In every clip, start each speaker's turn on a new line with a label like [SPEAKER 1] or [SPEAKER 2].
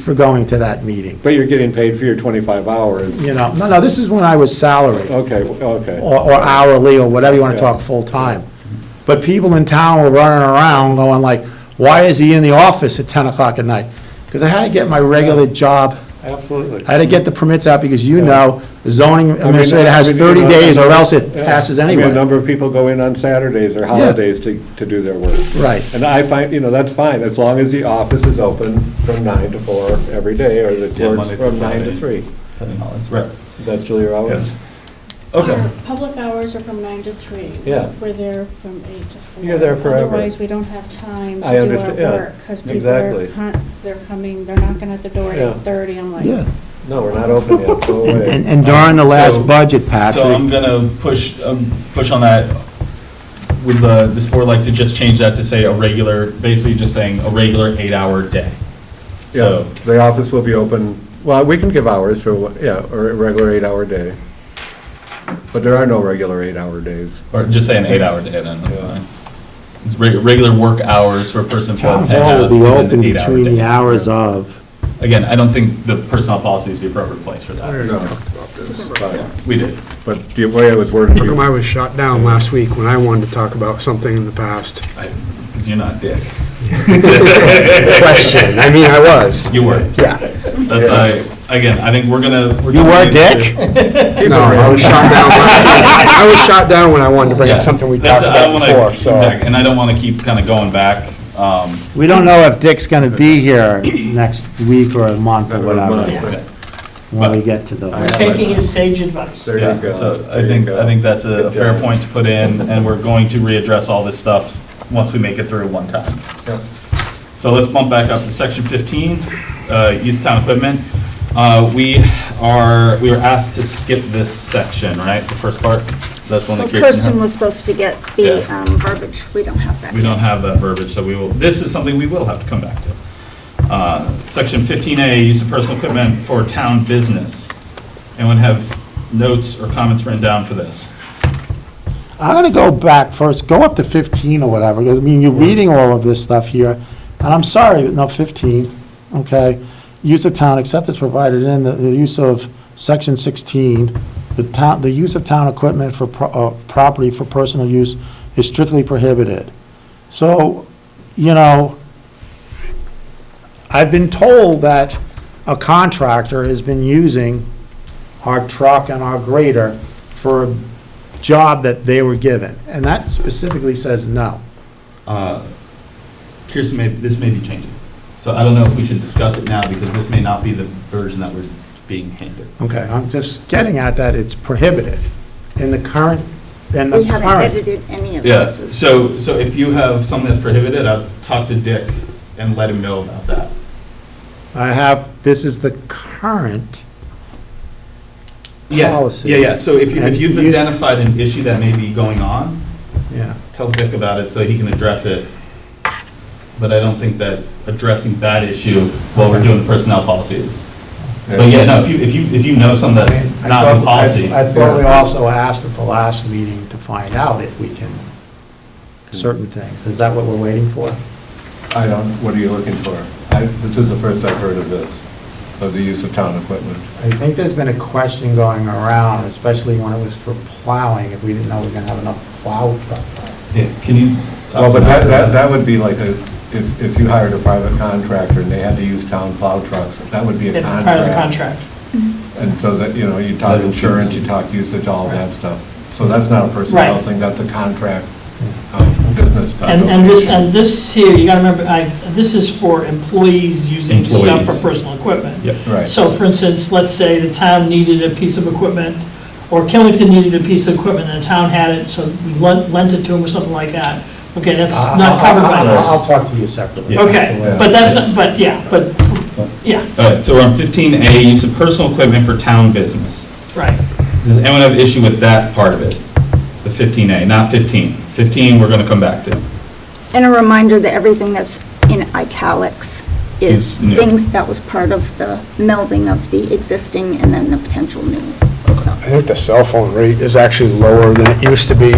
[SPEAKER 1] for going to that meeting,
[SPEAKER 2] But you're getting paid for your 25 hours.
[SPEAKER 1] you know? No, no, this is when I was salaried,
[SPEAKER 2] Okay, okay.
[SPEAKER 1] or or hourly, or whatever you want to
[SPEAKER 2] Yeah.
[SPEAKER 1] talk, full-time. But people in town were running around going like, why is he in the office at 10 o'clock at night? Because I had to get my regular job,
[SPEAKER 2] Absolutely.
[SPEAKER 1] I had to get the permits out, because you know, zoning
[SPEAKER 2] I mean,
[SPEAKER 1] administrator has
[SPEAKER 2] I mean, you
[SPEAKER 1] 30
[SPEAKER 2] know,
[SPEAKER 1] days, or
[SPEAKER 2] I mean,
[SPEAKER 1] else it
[SPEAKER 2] yeah.
[SPEAKER 1] passes
[SPEAKER 2] I mean,
[SPEAKER 1] anyway.
[SPEAKER 2] A number of people go in on Saturdays or holidays to, to do their work.
[SPEAKER 1] Right.
[SPEAKER 2] And I find, you know, that's fine, as long as the office is open from nine to four every day, or the
[SPEAKER 3] Yeah,
[SPEAKER 2] courts
[SPEAKER 3] Monday to
[SPEAKER 2] from nine to
[SPEAKER 3] Friday.
[SPEAKER 2] three.
[SPEAKER 3] Having all this, right.
[SPEAKER 2] That's still your hours?
[SPEAKER 3] Yeah. Okay.
[SPEAKER 4] Our Public hours are from nine to three.
[SPEAKER 2] Yeah.
[SPEAKER 4] We're there from eight to four.
[SPEAKER 2] You're there forever.
[SPEAKER 4] Otherwise, we don't have time
[SPEAKER 2] I
[SPEAKER 4] to do our
[SPEAKER 2] understand, yeah,
[SPEAKER 4] work, because people are,
[SPEAKER 2] exactly.
[SPEAKER 4] con- they're coming, they're knocking at the door at
[SPEAKER 2] Yeah.
[SPEAKER 4] eight-thirty, I'm like.
[SPEAKER 1] Yeah,
[SPEAKER 2] No, we're not open yet, go
[SPEAKER 1] And- and
[SPEAKER 2] away.
[SPEAKER 1] and during the
[SPEAKER 3] So-
[SPEAKER 1] last budget,
[SPEAKER 3] So I'm
[SPEAKER 1] Patrick,
[SPEAKER 3] gonna push, um, push on that. Would the, this board like to just change that to say a regular, basically just saying a regular eight-hour day?
[SPEAKER 2] Yeah,
[SPEAKER 3] So,
[SPEAKER 2] the office will be open, well, we can give hours for, what- yeah, or a regular eight-hour day. But there are no regular eight-hour days.
[SPEAKER 3] or just say an eight-hour day then. that's fine. It's re- regular work hours for a person
[SPEAKER 1] town
[SPEAKER 3] twelve ten
[SPEAKER 1] hall will
[SPEAKER 3] hours
[SPEAKER 1] be
[SPEAKER 3] is
[SPEAKER 1] open
[SPEAKER 3] an eight-hour
[SPEAKER 1] between the
[SPEAKER 3] day.
[SPEAKER 1] hours of,
[SPEAKER 3] Again, I don't think the personnel policy is the appropriate place for that.
[SPEAKER 2] No, but-
[SPEAKER 3] We did.
[SPEAKER 2] But the way it was worded.
[SPEAKER 5] How come I was shot down last week when I wanted to talk about something in the past?
[SPEAKER 3] Because you're not Dick.
[SPEAKER 5] Question, I mean, I was.
[SPEAKER 3] You were.
[SPEAKER 5] Yeah.
[SPEAKER 3] That's why, again, I think we're gonna. we're
[SPEAKER 1] you
[SPEAKER 3] gonna
[SPEAKER 1] were
[SPEAKER 3] need
[SPEAKER 1] Dick?
[SPEAKER 3] to-
[SPEAKER 5] No, I was shot down last week. I was shot down when I wanted to bring up
[SPEAKER 3] Yeah.
[SPEAKER 5] something we
[SPEAKER 3] That's-
[SPEAKER 5] talked
[SPEAKER 3] I don't
[SPEAKER 5] about
[SPEAKER 3] wanna-
[SPEAKER 5] before, so.
[SPEAKER 3] Exactly, and I don't want to keep kind of going back. um,
[SPEAKER 1] We don't know if Dick's going to be here next week or a month or whatever,
[SPEAKER 2] Month.
[SPEAKER 1] when we get to the,
[SPEAKER 6] Taking his sage advice.
[SPEAKER 2] There you
[SPEAKER 3] Yeah,
[SPEAKER 2] go.
[SPEAKER 3] so I
[SPEAKER 2] There
[SPEAKER 3] think,
[SPEAKER 2] you
[SPEAKER 3] I think
[SPEAKER 2] go.
[SPEAKER 3] that's a a
[SPEAKER 2] Good
[SPEAKER 3] fair
[SPEAKER 2] job.
[SPEAKER 3] point to put in, and we're going to readdress all this stuff once we make it through one time.
[SPEAKER 2] Yep.
[SPEAKER 3] So let's bump back up to section 15, uh, use town equipment. Uh, We are, we were asked to skip this section, right, the first part? That's one
[SPEAKER 7] Well,
[SPEAKER 3] that Kirsten
[SPEAKER 7] Kirsten
[SPEAKER 3] had.
[SPEAKER 7] was supposed to get the
[SPEAKER 3] Yeah.
[SPEAKER 7] um, verbiage, we don't have that.
[SPEAKER 3] We don't have that verbiage, so we will, this is something we will have to come back to. Uh, Section 15A, use of personal equipment for town business. Anyone have notes or comments written down for this?
[SPEAKER 1] I'm going to go back first, go up to 15 or whatever, 'cause, I mean, you're reading all of this stuff here, and I'm sorry, but no, 15, okay? Use of town, except as provided in the, the use of section 16, the town, the use of town equipment for, pro- uh, property for personal use is strictly prohibited. So, you know, I've been told that a contractor has been using our truck and our grader for a job that they were given, and that specifically says no.
[SPEAKER 3] Uh, Kirsten, may- this may be changing. So I don't know if we should discuss it now, because this may not be the version that we're being handed.
[SPEAKER 1] Okay, I'm just getting at that, it's prohibited in the current, in the
[SPEAKER 7] We haven't
[SPEAKER 1] current.
[SPEAKER 7] edited any of
[SPEAKER 3] Yeah,
[SPEAKER 7] this. It's-
[SPEAKER 3] so, so if you have something that's prohibited, I'll talk to Dick and let him know about that.
[SPEAKER 1] I have, this is the current,
[SPEAKER 3] Yeah,
[SPEAKER 1] Policy.
[SPEAKER 3] Yeah, yeah, so if you, if
[SPEAKER 1] And
[SPEAKER 3] you've
[SPEAKER 1] use-
[SPEAKER 3] identified an issue that may be going on,
[SPEAKER 1] yeah.
[SPEAKER 3] tell Dick about it so he can address it. But I don't think that addressing that issue while we're doing the personnel policy is. But yeah, no, if you, if you, if you know something that's
[SPEAKER 1] I
[SPEAKER 3] not in
[SPEAKER 1] thought- I-
[SPEAKER 3] policy,
[SPEAKER 1] I thought we also asked at the last meeting to find out if we can, certain things. Is that what we're waiting for?
[SPEAKER 2] I don't, what are you looking for? I, this is the first I've heard of this, of the use of town equipment.
[SPEAKER 1] I think there's been a question going around, especially when it was for plowing, if we didn't know we were gonna have enough plow truck.
[SPEAKER 3] Yeah, can you? talk
[SPEAKER 2] Well, but that,
[SPEAKER 3] about
[SPEAKER 2] that, that would be like a, if, if you hired a private contractor and they had to use town plow trucks, that would be a
[SPEAKER 6] They're
[SPEAKER 2] contract.
[SPEAKER 6] Part of the contract.
[SPEAKER 2] And so that, you know, you talk insurance, you talk usage, all that stuff. So that's not a personnel
[SPEAKER 6] Right.
[SPEAKER 2] thing, that's a contract, um, business.
[SPEAKER 3] Uh,
[SPEAKER 6] And, and this, and this here, you gotta remember, I, this is for employees using stuff for
[SPEAKER 3] Employees.
[SPEAKER 6] personal equipment.
[SPEAKER 3] Yep.
[SPEAKER 2] Right.
[SPEAKER 6] So for instance, let's say the town needed a piece of equipment, or Killington needed a piece of equipment, and the town had it, so we lent, lent it to them or something like that. Okay, that's not covered by
[SPEAKER 1] I'll-
[SPEAKER 6] this.
[SPEAKER 1] Ah, I'll I'll talk to you separately.
[SPEAKER 6] Okay,
[SPEAKER 2] Yeah.
[SPEAKER 6] but that's, not- but, yeah, but, yeah,
[SPEAKER 3] All right, so we're on fifteen A, use of personal equipment for town business.
[SPEAKER 6] right.
[SPEAKER 3] Does anyone have an issue with that part of it? The fifteen A, not fifteen. Fifteen, we're gonna come back to.
[SPEAKER 7] And a reminder that everything that's in italics
[SPEAKER 3] Is
[SPEAKER 7] is
[SPEAKER 3] new.
[SPEAKER 7] things that was part of the melding of the existing and then the potential new, so.
[SPEAKER 5] I think the cell phone rate is actually lower than it used to be.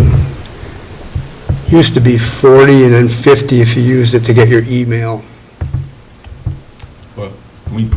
[SPEAKER 5] Used to be 40 and then 50 if you used it to get your email.
[SPEAKER 3] Well, we